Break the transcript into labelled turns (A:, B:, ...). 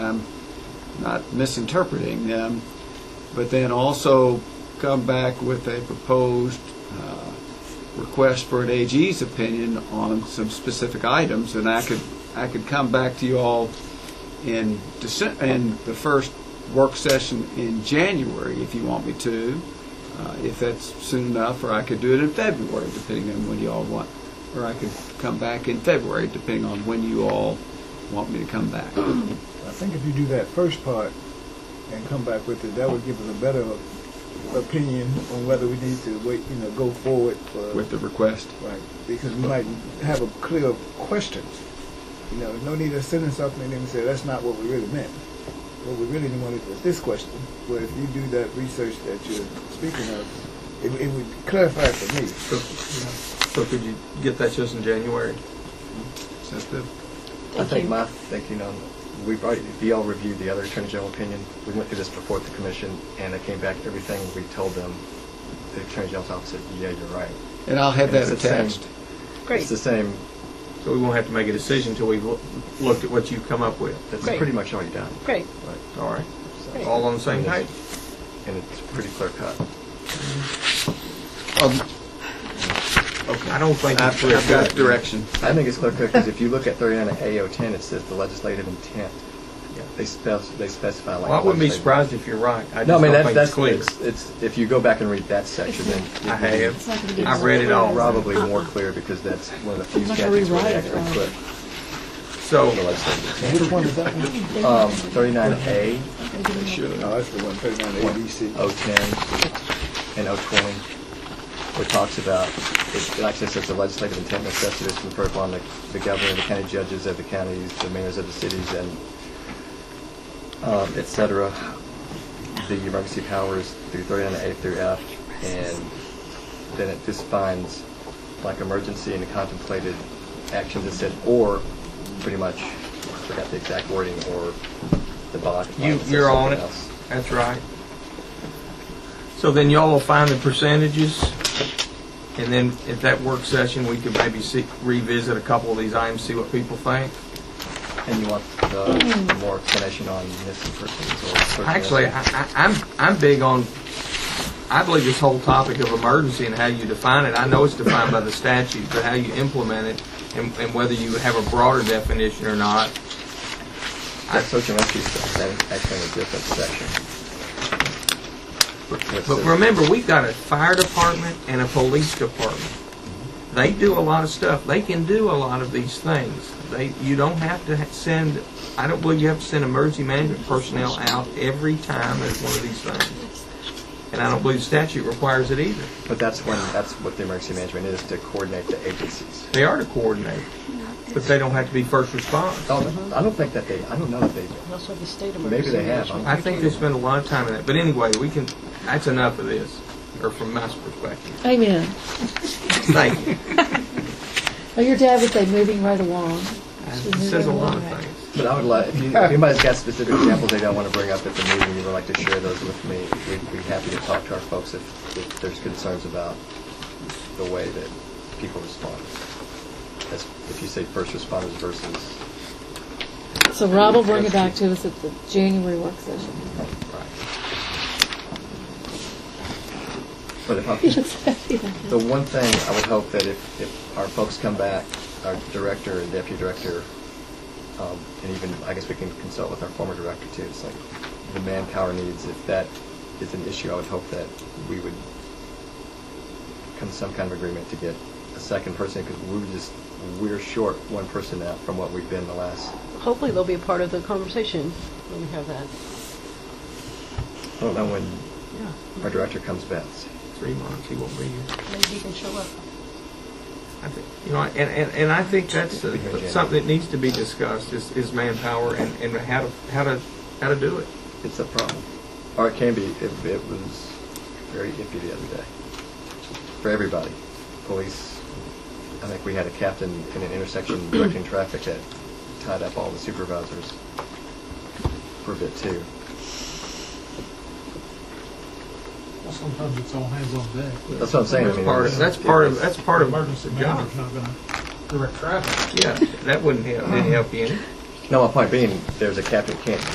A: I'm not misinterpreting them, but then also come back with a proposed uh, request for an AG's opinion on some specific items, and I could, I could come back to you all in December, in the first work session in January, if you want me to, uh, if that's soon enough, or I could do it in February, depending on when you all want, or I could come back in February, depending on when you all want me to come back.
B: I think if you do that first part and come back with it, that would give us a better opinion on whether we need to wait, you know, go forward for,
A: with the request.
B: right, because we might have a clear question. You know, no need to send us something and then say, that's not what we really meant. What we really wanted was this question, where if you do that research that you're speaking of, it, it would clarify for me.
C: So, so could you get that just in January?
A: Is that the-
D: I
E: Thank
D: think
E: you.
D: my thinking on, we've already, we all reviewed the other Attorney General opinion. We went through this before the commission, and it came back, everything we told them, the Attorney General's office said, yeah, you're right.
A: And I'll have
D: And
A: that
D: it's the same-
A: attached.
E: Great.
D: It's the same,
C: So we won't have to make a decision until we've loo- looked at what you've come up with.
D: that's
E: Great.
D: pretty much already done.
E: Great.
D: Right.
C: All right.
D: So-
C: All on the same page?
D: And it's pretty clear cut.
A: Um,
C: I don't think
A: I've I've got
C: it's correct.
A: direction.
D: I think it's clear cut, because if you look at 39A010, it says the legislative intent.
C: Yeah.
D: They spec- they specify like.
C: Well, I wouldn't be
D: legislative-
C: surprised if you're right. I
D: No,
C: just
D: I mean,
C: don't
D: that's,
C: think it's
D: that's,
C: clear.
D: it's, it's, if you go back and read that section, then. it
C: I
D: would be-
C: have.
E: It's-
C: I've read it all.
D: Probably more clear because that's one of the few
E: I'm not gonna
D: statutes where they
E: rewrite it,
D: actually
E: right.
D: put the
C: So,
D: legislative.
B: Which one is that one?
D: Um, 39A,
A: Should.
B: No, Oh, that's the one, thirty-nine ABC.
D: 010, and 020, which talks about, it it actually says the legislative intent necessity is conferred upon the the governor, the county judges of the counties, the mayors of the cities, and um, et cetera, the emergency powers through 39A through F, and then it just finds like emergency and contemplated actions that said, or pretty much, I forgot the exact wording, or the bond.
C: you, you're on it. That's right. So then y'all will find the percentages, and then at that work session, we could maybe see, revisit a couple of these items, see what people think.
D: And you want the more explanation on missing persons or certain
C: Actually, I,
D: missing-
C: I, I'm I'm big on. I believe this whole topic of emergency and how you define it. I know it's defined by the statute, but how you implement it and, and whether you have a broader definition or not.
D: That social message stuff, that is actually in a different section.
C: But remember, we've got a fire department and a police department. They do a lot of stuff. They can do a lot of these things. They you don't have to ha- send. I don't believe you have to send emergency management personnel out every time there's one of these things. And I don't believe statute requires it either.
D: But that's when, that's what the emergency management is, to coordinate the agencies.
C: They are to coordinate, but they don't have to be first response.
D: Oh, I don't think that they, I don't know that they,
E: Also the state
D: Maybe they have, huh?
C: I think they spend a lot of time in that, but anyway, we can, that's enough of this, or from my perspective.
E: Amen.
C: Thank you.
E: Well, your dad would say moving right along.
C: It says a lot of things.
D: but I would like, if you- if anybody's got specific examples they don't want to bring up at the meeting, you would like to share those with me, we'd be happy to talk to our folks if, if there's concerns about the way that people respond. As, if you say first responders versus
E: So Rob will bring it back to us at the January work session.
D: But if I,
E: He looks happy.
D: the one thing I would hope that if, if our folks come back, our director and deputy director, um, and even, I guess we can consult with our former director too, it's like the manpower needs, if that is an issue, I would hope that we would come to some kind of agreement to get a second person, because we were just, we're short one person now from what we've been the last,
F: Hopefully they'll be a part of the conversation when we have that.
D: I don't know when
C: Yeah,
D: our director comes back.
C: three months, he won't be here.
F: Maybe he can show up.
C: I think, you know, and, and, and I think that's uh, something that needs to be discussed, is, is manpower and, and how to, how to, how to do it.
D: It's a problem. Or it can be. It, it was very iffy the other day. For everybody. Police, I think we had a captain in an intersection directing traffic that tied up all the supervisors for a bit too.
G: Well, Sometimes it's all hands on deck.
D: That's what I'm saying. I
C: That's
D: mean,
C: part
D: it
C: of,
D: was-
C: that's part of,
D: it
C: that's part of
G: Emergency
C: the job.
G: manager's not gonna direct traffic.
C: Yeah, that wouldn't help, didn't help you any.
D: was- No, my point being, there's a captain can't